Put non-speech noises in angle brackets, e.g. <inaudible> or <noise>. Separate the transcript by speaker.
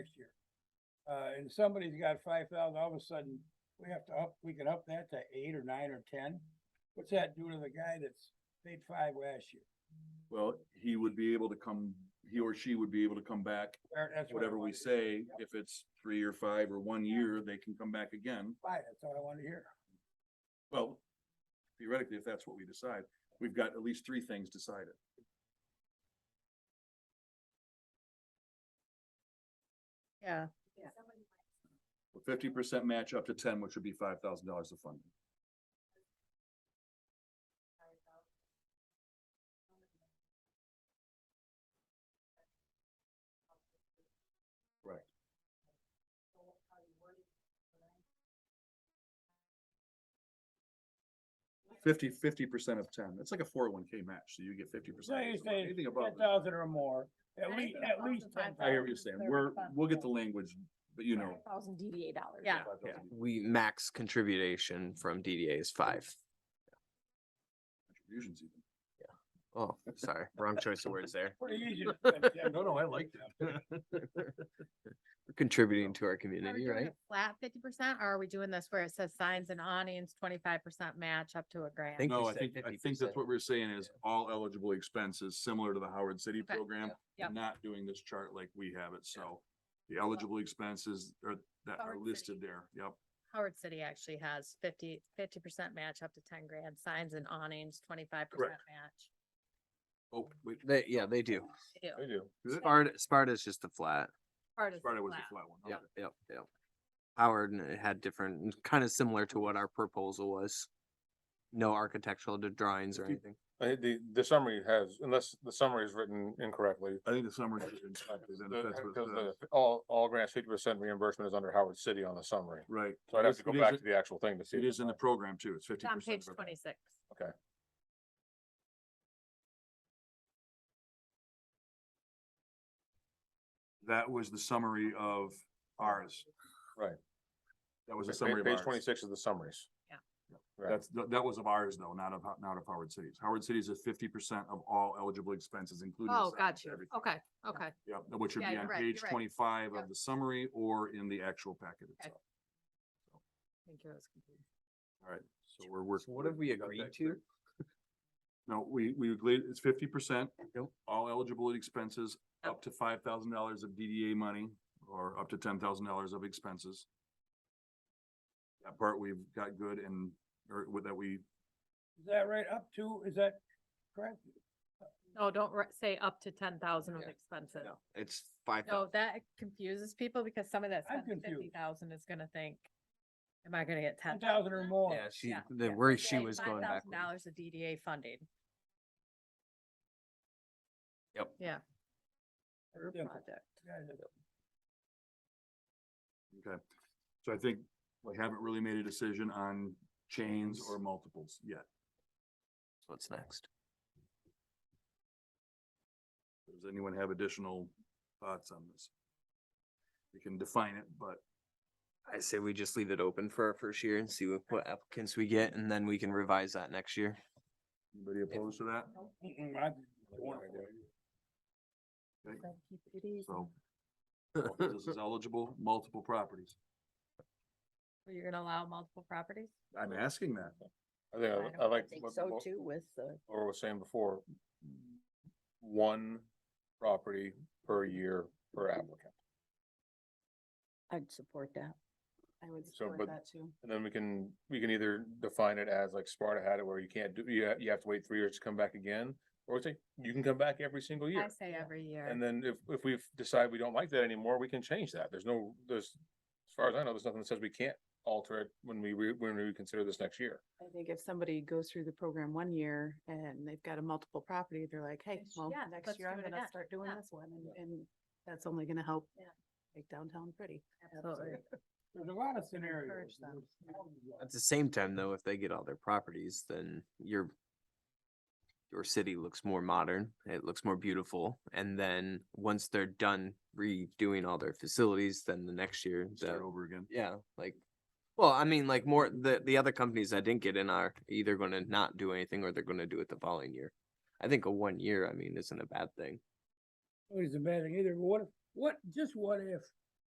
Speaker 1: next year. Uh, and somebody's got five thousand, all of a sudden, we have to up, we can up that to eight or nine or ten. What's that do to the guy that's paid five last year?
Speaker 2: Well, he would be able to come, he or she would be able to come back,
Speaker 1: Or that's what I
Speaker 2: whatever we
Speaker 1: wanted to-
Speaker 2: say,
Speaker 1: Yep,
Speaker 2: if it's three or five or one year, they can come back again.
Speaker 1: Fine, that's all I want to hear.
Speaker 2: Well, theoretically, if that's what we decide, we've got at least three things decided.
Speaker 3: Yeah,
Speaker 2: Fifty percent match up to ten, which would be five thousand dollars of funding. Right. Fifty, fifty percent of ten. It's like a four oh one K match, so you get fifty
Speaker 1: So
Speaker 2: percent.
Speaker 1: you say
Speaker 2: Anything above.
Speaker 1: ten thousand or more, at
Speaker 3: I
Speaker 1: least,
Speaker 3: think
Speaker 1: at
Speaker 3: above
Speaker 1: least
Speaker 3: the
Speaker 1: ten
Speaker 2: I hear what
Speaker 1: thousand.
Speaker 2: you're saying. We're, we'll get the language, but you know.
Speaker 4: Thousand DDA dollars.
Speaker 3: Yeah.
Speaker 2: Yeah.
Speaker 5: we max contribution from DDA is five.
Speaker 2: Contributions even.
Speaker 5: Oh, sorry, wrong choice of words there.
Speaker 1: Pretty easy. to
Speaker 2: <laughs>
Speaker 1: spend $10,000.
Speaker 2: No, no, I liked
Speaker 5: We're Contributing to our
Speaker 3: are we
Speaker 5: community,
Speaker 3: doing
Speaker 5: right?
Speaker 3: a flat fifty percent or are we doing this where it says signs and awnings, twenty-five percent match up to a grand?
Speaker 5: think we
Speaker 2: No, I
Speaker 5: said
Speaker 2: think, I think that's
Speaker 5: 50%.
Speaker 2: what we're saying is all eligible expenses, similar to the Howard City
Speaker 3: Okay,
Speaker 2: program.
Speaker 3: yep.
Speaker 2: and Not doing this chart like we have it, so the eligible expenses are, that are
Speaker 3: Howard City.
Speaker 2: listed there, yep.
Speaker 3: Howard City actually has 50 50 percent match up to ten grand, signs and awnings, twenty-five percent
Speaker 2: Correct.
Speaker 3: match.
Speaker 2: Oh, wait.
Speaker 5: They, yeah, they do.
Speaker 3: They do.
Speaker 2: do. Is it?
Speaker 5: Sparta, Sparta's just a flat.
Speaker 3: Part is
Speaker 2: Sparta was the
Speaker 3: flat.
Speaker 2: flat one.
Speaker 5: Yep,
Speaker 2: okay.
Speaker 5: yep, yep. Howard n- had different, kind of similar to what our proposal was. No architectural d- drawings or
Speaker 6: Fifty-
Speaker 5: anything.
Speaker 6: I think Uh, the, the summary has, unless the summary is written incorrectly.
Speaker 2: I think the summary is incorrect, then if
Speaker 6: the-
Speaker 2: that's what uh, it
Speaker 6: Because the,
Speaker 2: says.
Speaker 6: all, all grants fifty percent reimbursement is under Howard City on the summary.
Speaker 2: Right.
Speaker 6: So I'd have to
Speaker 2: It
Speaker 6: go
Speaker 2: is-
Speaker 6: back
Speaker 2: it
Speaker 6: to the actual thing to see.
Speaker 2: It
Speaker 6: if
Speaker 2: is in the
Speaker 6: it's
Speaker 2: program too, it's fifty
Speaker 3: It's on
Speaker 2: percent.
Speaker 3: page twenty-six.
Speaker 2: That was the summary of ours.
Speaker 6: Right.
Speaker 2: That was
Speaker 6: on.
Speaker 2: a summary of
Speaker 6: Page
Speaker 2: ours.
Speaker 6: twenty-six is the summaries.
Speaker 3: Yeah.
Speaker 6: Right.
Speaker 2: That's, th- that was of ours though, not of, Ho- not of Howard City's. Howard City's is fifty percent of all eligible expenses, including.
Speaker 3: Oh,
Speaker 2: signs,
Speaker 3: got you.
Speaker 2: everything.
Speaker 3: Okay, okay.
Speaker 2: Yep, that which would
Speaker 3: Yeah,
Speaker 2: be
Speaker 3: you're
Speaker 2: on
Speaker 3: right,
Speaker 2: page
Speaker 3: you're right.
Speaker 2: twenty-five
Speaker 3: Yep.
Speaker 2: of the summary or in the actual packet itself.
Speaker 3: Thank you. I was confused.
Speaker 2: All right, so we're working.
Speaker 5: So what have we agreed to?
Speaker 2: No, we, we agreed, it's fifty percent.
Speaker 5: Yep.
Speaker 2: All eligible expenses, up to five thousand dollars of DDA money or up to ten thousand dollars of expenses. That part we've got good and, or with that we,
Speaker 1: Is that right? Up to, is that correct?
Speaker 3: No, don't ri- say up to ten thousand of
Speaker 5: Yeah.
Speaker 3: expenses.
Speaker 5: No, It's five.
Speaker 3: No,
Speaker 5: thou-
Speaker 3: that confuses people because some of that
Speaker 1: I'm
Speaker 3: fifty
Speaker 1: confused.
Speaker 3: thousand is gonna think, am I gonna get ten?
Speaker 1: Ten thousand or more?
Speaker 5: Yeah, she,
Speaker 3: yeah,
Speaker 5: the worry she was going back.
Speaker 3: Dollars of DDA funding.
Speaker 5: Yep.
Speaker 3: Yeah. Per
Speaker 1: Yeah.
Speaker 3: project.
Speaker 1: Guys, it's
Speaker 2: okay. So I think we haven't really made a decision on chains or multiples yet.
Speaker 5: What's next?
Speaker 2: Does anyone have additional thoughts on this? We can define it, but
Speaker 5: I say we just leave it open for our first year and see what- what applicants we get, and then we can revise that next year.
Speaker 2: anybody opposed to that?
Speaker 1: Mm-mm, I- wonderful.
Speaker 2: Okay,
Speaker 3: So keep it easy.
Speaker 2: So.
Speaker 5: <laughs>
Speaker 2: This is eligible, multiple properties.
Speaker 3: So You're gonna allow multiple properties?
Speaker 2: I'm asking that.
Speaker 6: I think,
Speaker 3: I don't
Speaker 6: I- I like
Speaker 4: think
Speaker 6: what,
Speaker 4: so
Speaker 6: what
Speaker 4: too with the.
Speaker 6: Laura was saying before. One property per year per applicant.
Speaker 4: I'd support that.
Speaker 7: I would
Speaker 6: So, but-
Speaker 7: support that too.
Speaker 6: And then we can, we can either define it as like Sparta had it where you can't do, you, ha- you have to wait three years to come back again. Or we say, you can come back every single year.
Speaker 3: I say every year.
Speaker 6: And then if, if we've decided we don't like that anymore, we can change that. There's no, there's, as far as I know, there's nothing that says we can't alter it when we, re- when we reconsider this next year.
Speaker 7: I think if somebody goes through the program one year and they've got a multiple property, they're like, hey,
Speaker 3: Yes,
Speaker 7: well,
Speaker 3: yeah, let's
Speaker 7: next year
Speaker 3: do
Speaker 7: I'm
Speaker 3: it
Speaker 7: gonna
Speaker 3: again."
Speaker 7: start doing
Speaker 3: Yeah.
Speaker 7: this one and, and that's only gonna help
Speaker 3: Yeah.
Speaker 7: make downtown pretty.
Speaker 3: Absolutely.
Speaker 1: There's a lot of
Speaker 7: encourage
Speaker 1: scenarios.
Speaker 7: them.
Speaker 1: There's-
Speaker 5: At the same time, though, if they get all their properties, then your your city looks more modern, it looks more beautiful, and then once they're done redoing all their facilities, then the next year,
Speaker 2: Start
Speaker 5: the-
Speaker 2: over again.
Speaker 5: yeah, like, well, I mean, like more, the, the other companies that didn't get in are either gonna not do anything or they're gonna do it the following year. I think a one year, I mean, isn't a bad thing.
Speaker 1: It's a bad thing either, but what, if- what, just what if